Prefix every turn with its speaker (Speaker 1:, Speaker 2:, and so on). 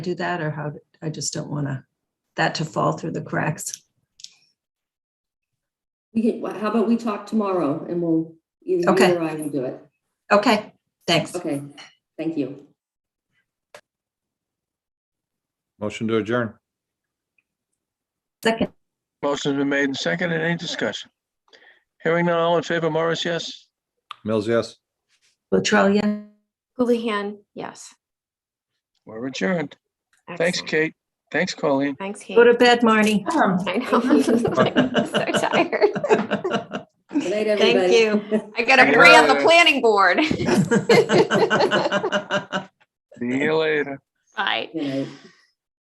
Speaker 1: do that or how, I just don't want to, that to fall through the cracks.
Speaker 2: We can, wh- how about we talk tomorrow and we'll, either
Speaker 1: Okay.
Speaker 2: you or I will do it.
Speaker 1: Okay, thanks.
Speaker 2: Okay, thank you.
Speaker 3: Motion to adjourn.
Speaker 1: Second,
Speaker 4: Motion's been made and seconded. Any discussion? Hearing none, all in favor, Morris, yes?
Speaker 3: Mills, yes.
Speaker 1: Latrell, yeah.
Speaker 5: Houlihan, yes.
Speaker 4: We're adjourned. Thanks,
Speaker 5: Excellent.
Speaker 4: Kate. Thanks, Colleen.
Speaker 5: Thanks, Kate.
Speaker 1: Go to bed, Marnie.
Speaker 5: I know. I'm So tired.
Speaker 2: Good night,
Speaker 1: Thank
Speaker 2: everybody.
Speaker 1: you.
Speaker 5: I got to agree on the planning board.
Speaker 4: See you later.
Speaker 5: Bye.
Speaker 2: Good night.